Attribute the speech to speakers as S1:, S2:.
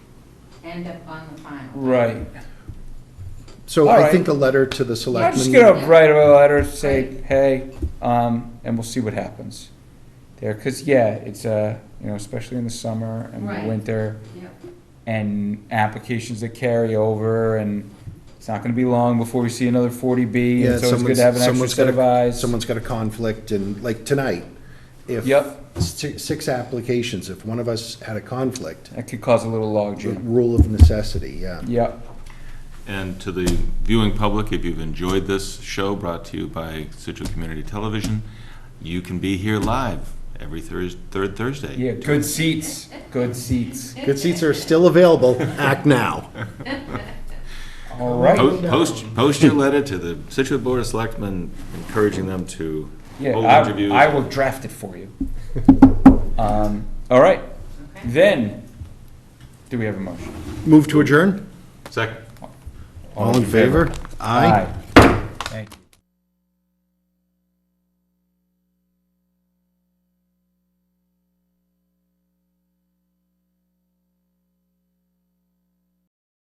S1: end up on the final.
S2: Right.
S3: So
S2: All
S3: I
S2: right.
S3: think a letter to the
S2: I'm
S3: selectmen.
S2: just gonna write a letter, say, hey, um, and we'll see what happens there, cause yeah, it's, uh, you know, especially in the summer and
S1: Right.
S2: the winter,
S1: Yep.
S2: and applications that carry over, and it's not gonna be long before we see another forty B,
S3: Yeah,
S2: and so it's good
S3: someone's-
S2: to have an extra
S3: someone's
S2: set
S3: gotta-
S2: of eyes.
S3: Someone's got a conflict and, like tonight, if.
S2: Yep,
S3: si- Six applications, if one of us had a conflict,
S2: that could cause a little logjam,
S3: rule of necessity, yeah.
S2: yep.
S4: And to the viewing public, if you've enjoyed this show brought to you by Situate Community Television, you can be here live every Thurs, third Thursday.
S2: Yeah, good seats, good seats.
S3: Good seats are still available, act now.
S2: All right.
S4: Po- Post, post your letter to the Situate Board of Selectmen encouraging them to
S2: Yeah,
S4: hold
S2: I,
S4: interviews.
S2: I will draft it for you. Um, all right,
S1: Okay.
S2: then, do we have a motion?
S3: Move to adjourn?
S4: Second.
S3: All in favor? Aye.
S2: Aye.